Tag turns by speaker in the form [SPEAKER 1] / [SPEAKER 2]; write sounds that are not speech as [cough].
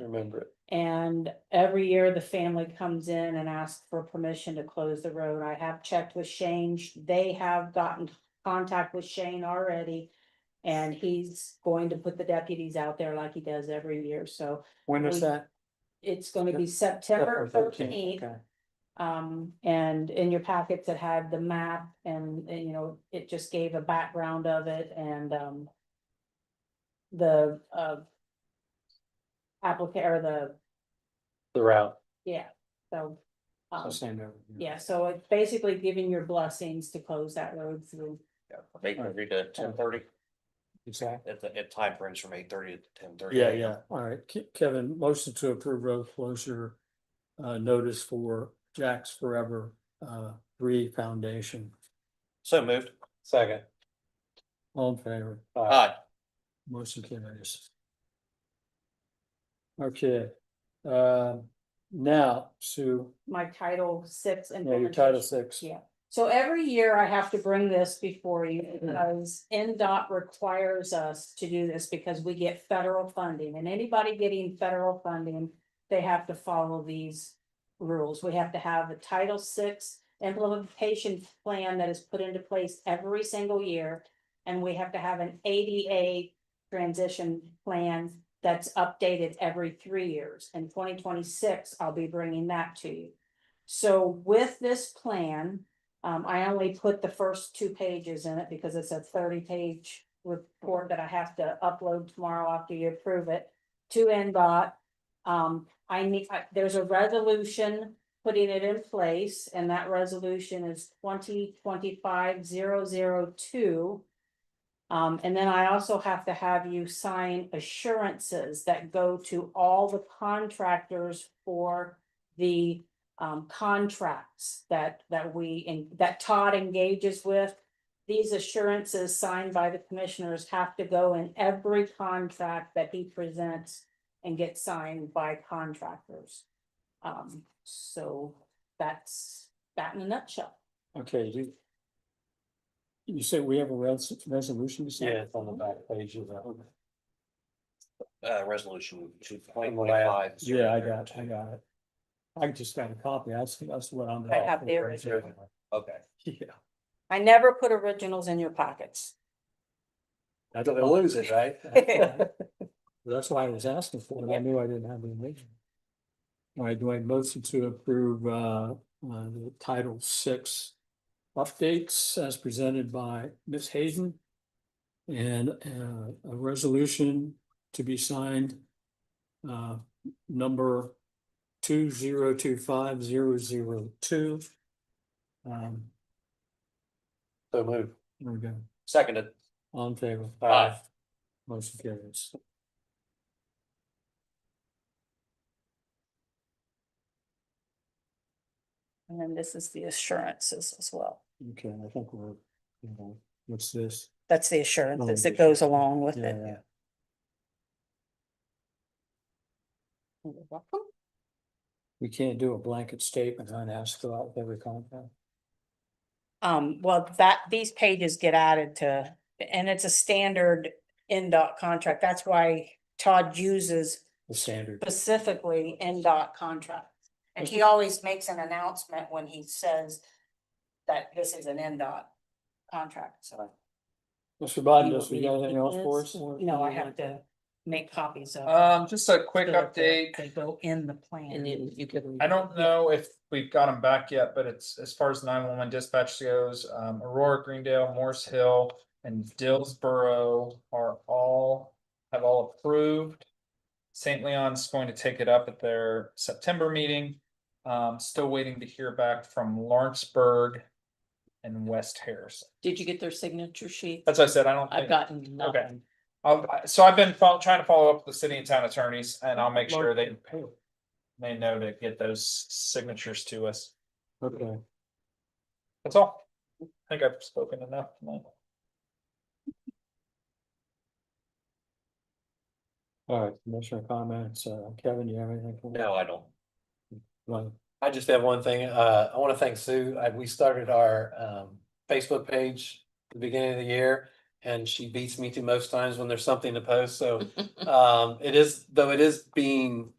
[SPEAKER 1] remember it.
[SPEAKER 2] And every year the family comes in and asks for permission to close the road. I have checked with Shane. They have gotten contact with Shane already. And he's going to put the deputies out there like he does every year. So
[SPEAKER 1] When is
[SPEAKER 2] We-
[SPEAKER 1] that?
[SPEAKER 2] it's gonna be
[SPEAKER 1] September
[SPEAKER 2] September
[SPEAKER 1] 13th,
[SPEAKER 2] thirteenth.
[SPEAKER 1] okay.
[SPEAKER 2] Um, and in your packets, it had the map and, and, you know, it just gave a background of it and, um. The, uh. Applicant or the,
[SPEAKER 1] The route.
[SPEAKER 2] yeah, so.
[SPEAKER 1] So
[SPEAKER 2] Um,
[SPEAKER 1] same over here.
[SPEAKER 2] yeah, so it's basically giving your blessings to close that road through.
[SPEAKER 3] Eight thirty to ten thirty,
[SPEAKER 1] Exactly.
[SPEAKER 3] at the, at time frames from eight thirty to ten thirty.
[SPEAKER 1] Yeah, yeah. All right. Ke- Kevin, motion to approve road closure uh, notice for Jack's Forever uh, Re Foundation.
[SPEAKER 3] So moved. Second.
[SPEAKER 1] All in favor?
[SPEAKER 4] Uh,
[SPEAKER 3] Aye.
[SPEAKER 1] Motion carries. Okay, uh, now, Sue,
[SPEAKER 2] My title six.
[SPEAKER 1] yeah, your title
[SPEAKER 2] implementation.
[SPEAKER 1] six.
[SPEAKER 2] Yeah. So every year I have to bring this before you because NDOT requires us to do this because we get federal funding and anybody getting federal funding. They have to follow these rules. We have to have a Title VI implementation plan that is put into place every single year. And we have to have an ADA transition plan that's updated every three years. In twenty twenty-six, I'll be bringing that to you. So with this plan, um, I only put the first two pages in it because it's a thirty-page report that I have to upload tomorrow after you approve it to NDOT. Um, I need, I- there's a resolution putting it in place, and that resolution is twenty twenty-five zero zero two. Um, and then I also have to have you sign assurances that go to all the contractors for the um, contracts that, that we, and that Todd engages with. These assurances signed by the commissioners have to go in every contract that he presents and get signed by contractors. Um, so that's that in a nutshell.
[SPEAKER 1] Okay, you. You said we have a res- resolution to sign?
[SPEAKER 2] Yeah, it's on the back
[SPEAKER 1] page of
[SPEAKER 3] Uh, resolution two point five.
[SPEAKER 1] Yeah, I got, I got it. I just got a copy. That's, that's what I'm.
[SPEAKER 2] I have the original.
[SPEAKER 3] Okay.
[SPEAKER 1] [laughs] Yeah.
[SPEAKER 2] I never put originals in your pockets.
[SPEAKER 1] That's
[SPEAKER 3] Don't lose it, right?
[SPEAKER 1] That's why I was asking for it. I knew I didn't have the original. All right, do I motion to approve uh uh the Title Six updates as presented by Ms. Hayden? And uh a resolution to be signed uh number two zero two five zero zero two. Um,
[SPEAKER 3] So moved.
[SPEAKER 1] there we go.
[SPEAKER 3] Seconded.
[SPEAKER 1] All in favor?
[SPEAKER 3] Aye.
[SPEAKER 1] Motion carries.
[SPEAKER 2] And then this is the assurances as well.
[SPEAKER 1] Okay, I think we're, you know, what's this?
[SPEAKER 2] That's the assurances that goes along with it.
[SPEAKER 1] Oh, Yeah,
[SPEAKER 2] You're welcome.
[SPEAKER 1] we can't do a blanket statement on ask throughout every contract.
[SPEAKER 2] Um, well, that, these pages get added to, and it's a standard NDOT contract. That's why Todd uses
[SPEAKER 1] the standard.
[SPEAKER 2] specifically NDOT contract. And he always makes an announcement when he says that this is an NDOT contract, so.
[SPEAKER 1] Mr. Biden,
[SPEAKER 2] You
[SPEAKER 1] does we got
[SPEAKER 2] want me to
[SPEAKER 1] anything
[SPEAKER 2] keep
[SPEAKER 1] else for
[SPEAKER 2] this?
[SPEAKER 1] us? or-
[SPEAKER 2] No, I have to make copies of.
[SPEAKER 5] Um, just a quick
[SPEAKER 2] so that they-
[SPEAKER 5] update.
[SPEAKER 2] They go in the plan.
[SPEAKER 6] you, you give them.
[SPEAKER 5] Mm-hmm. I don't know if we've got them back yet, but it's as far as nine one one dispatch goes, um, Aurora, Greendale, Morse Hill. And Dillsboro are all, have all approved. Saint Leon's going to take it up at their September meeting. Um, still waiting to hear back from Lawrenceburg. And West Harrison.
[SPEAKER 6] Did you get their signature sheet?
[SPEAKER 5] That's what I said, I don't
[SPEAKER 6] I've
[SPEAKER 5] think,
[SPEAKER 6] gotten nothing.
[SPEAKER 5] I'll- I- so I've been fol- trying to follow up with the city and town attorneys and I'll make sure they. They know to get those signatures to us.
[SPEAKER 1] Okay,
[SPEAKER 5] That's all. I think I've spoken enough tonight.
[SPEAKER 1] all right, commissioner comments, uh, Kevin, you have anything? for us?
[SPEAKER 3] No, I don't.
[SPEAKER 1] Well,
[SPEAKER 4] I just have one thing. Uh, I want to thank Sue. I, we started our, um, Facebook page at the beginning of the year. and
[SPEAKER 3] [laughs]
[SPEAKER 4] she beats me to most times when there's something to post, so. Um, it is, though it is being